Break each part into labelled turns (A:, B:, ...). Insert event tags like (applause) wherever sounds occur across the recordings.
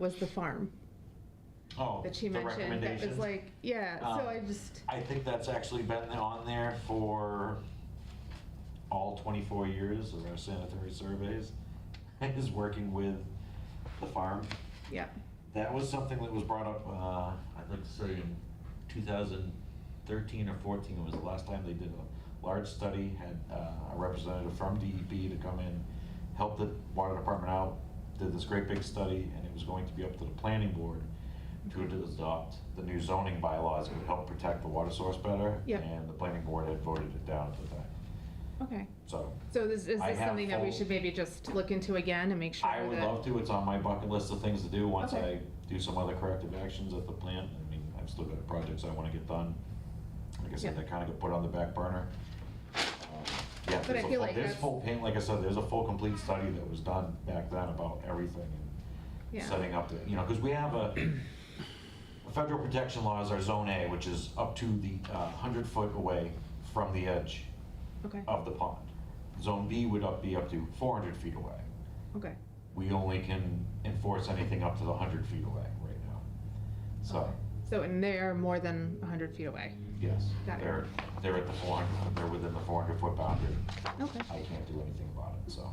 A: was the farm
B: Oh,
A: that she
B: the
A: mentioned. That was
B: recommendations?
A: like, yeah, so
B: Um,
A: I just,
B: I think that's actually been on there for all 24 years of our sanitary surveys, (laughs) is working with the farm.
A: yeah,
B: That was something that was brought up, uh, I'd like to say in 2013 or 14, it was the last time they did a large study, had uh, a representative from DEP to come in, help the water department out, did this great big study, and it was going to be up to the planning board to adopt the new zoning bylaws that would help protect the water source better.
A: Yep.
B: And the planning board had voted it down at the time,
A: okay.
B: so.
A: So this, is
B: I
A: this
B: have
A: something that we
B: full-
A: should maybe just look into again and make sure
B: I would
A: that-
B: love to. It's on my bucket list of things to do once I
A: Okay.
B: do some other corrective actions at the plant. I mean, I've still got projects I want to get done. Like I said,
A: Yeah.
B: they kind of got put on the back burner. Um, Yeah,
A: But I
B: there's
A: feel
B: a full-
A: like
B: there's
A: that's-
B: full paint, like I said, there's a full complete study that was done back then about everything and
A: Yeah.
B: setting up, the- you know, because we have a, (coughs) the federal protection laws are zone A, which is up to the uh, 100 foot away from the edge
A: Okay,
B: of the pond. Zone B would up, be up to 400 feet away
A: okay,
B: we only can enforce anything up to the 100 feet away right now. So,
A: so, and they're more than hundred feet away,
B: yes,
A: Got it.
B: they're, they're at the 400, they're within the 400-foot boundary.
A: okay.
B: I can't do anything about it, so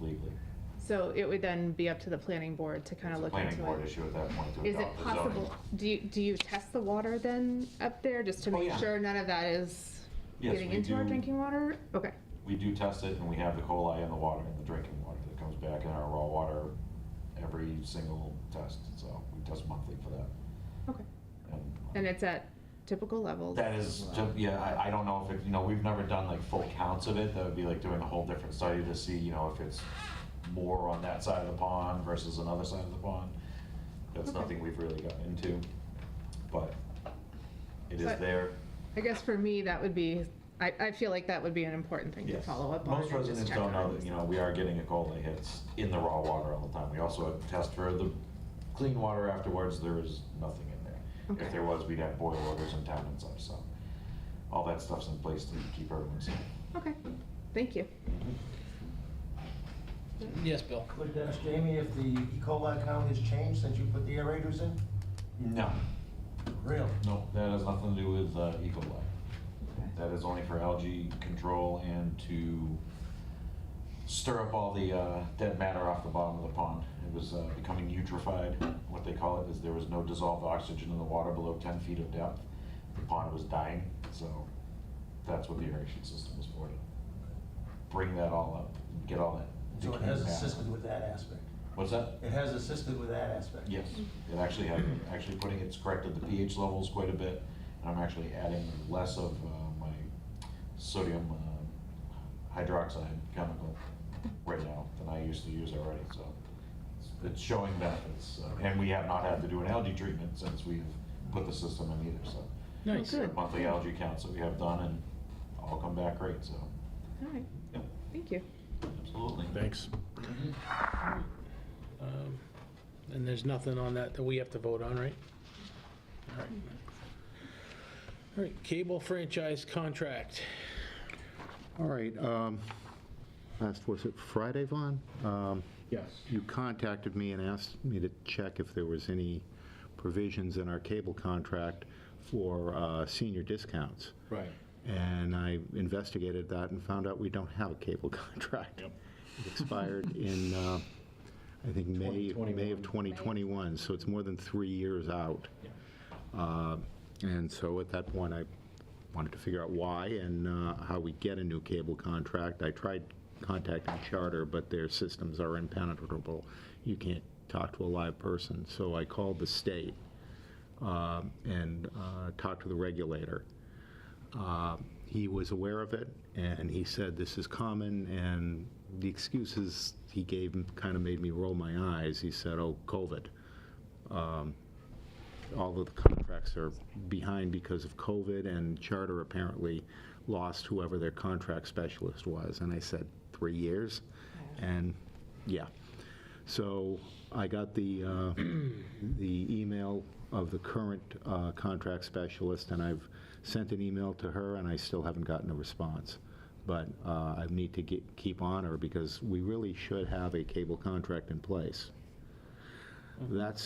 B: legally.
A: So it would then be up to the planning board to kind
B: It's
A: of
B: a
A: look
B: planning
A: into
B: board
A: it.
B: issue at that point to
A: Is it
B: adopt the zoning.
A: possible, do you, do you test the water then up there, just to
B: Oh,
A: make
B: yeah.
A: sure none of that is
B: Yes,
A: getting
B: we
A: into our
B: do.
A: drinking water? Okay,
B: We do test it, and we have the coli in the water, in the drinking water that comes back in our raw water every single test, so we test monthly for that.
A: okay.
B: And
A: And it's at typical levels?
B: That is, ju- yeah, I, I don't know if it, you know, we've never done like full counts of it. That would be like doing a whole different study to see, you know, if it's more on that side of the pond versus another side of the pond. That's
A: Okay.
B: nothing we've really gotten into, but it is
A: But-
B: there.
A: I guess for me, that would be, I, I feel like that would be an important thing to
B: Yes.
A: follow up on.
B: Most
A: and just
B: residents
A: check
B: don't know
A: on.
B: that, you know, we are getting a cold that hits in the raw water all the time. We also test for the clean water afterwards, there is nothing in there.
A: Okay.
B: If there was, we'd have boil orders in town and such, so all that stuff's in place to keep everyone safe.
A: Okay, thank you.
C: Yes, Bill.
D: Could ask Jamie if the E. coli count has changed since you put the aerators in?
B: No,
D: Really?
B: No, that has nothing to do with uh, E. coli. That is only for algae control and to stir up all the uh, dead matter off the bottom of the pond. It was uh, becoming eutrophied. What they call it is there was no dissolved oxygen in the water below 10 feet of depth. The pond was dying, so that's what the aeration system was for, to bring that all up, and get all that.
D: So it
B: decaying
D: has
B: matter.
D: assisted with that aspect.
B: What's that?
D: It has assisted with that aspect.
B: Yes, it actually had, actually putting, it's corrected the pH levels quite a bit, and I'm actually adding less of uh, my sodium uh, hydroxide chemical right now than I used to use already, so it's- it's showing benefits. uh, And we have not had to do an algae treatment since we've put the system in either, so
C: Nice.
A: Oh,
B: the
A: good. All
B: monthly algae counts that we have done and all come back great, so,
A: right,
B: yep,
A: thank you.
B: absolutely.
C: Thanks. Um, And there's nothing on that that we have to vote on, right? All right. All right, cable franchise contract.
E: All right, um, last, was it Friday, Vaughn? Um,
F: Yes.
E: You contacted me and asked me to check if there was any provisions in our cable contract for uh, senior discounts.
F: Right.
E: And I investigated that and found out we don't have a cable (laughs) contract.
F: Yep.
E: It expired in, uh, I think, May, May of 2021, so it's more than three years out. Uh, And so at that point, I wanted to figure out why and uh, how we get a new cable contract. I tried contacting Charter, but their systems are impenetrable. You can't talk to a live person. So I called the state uh, and uh, talked to the regulator. Uh, He was aware of it, and he said, this is common, and the excuses he gave kind of made me roll my eyes. He said, oh, COVID. Um, All of the contracts are behind because of COVID, and Charter apparently lost whoever their contract specialist was. And I said, three years? And, yeah. So I got the, uh, the email of the current uh, contract specialist, and I've sent an email to her, and I still haven't gotten a response. But uh, I need to get, keep on her, because we really should have a cable contract in place. That's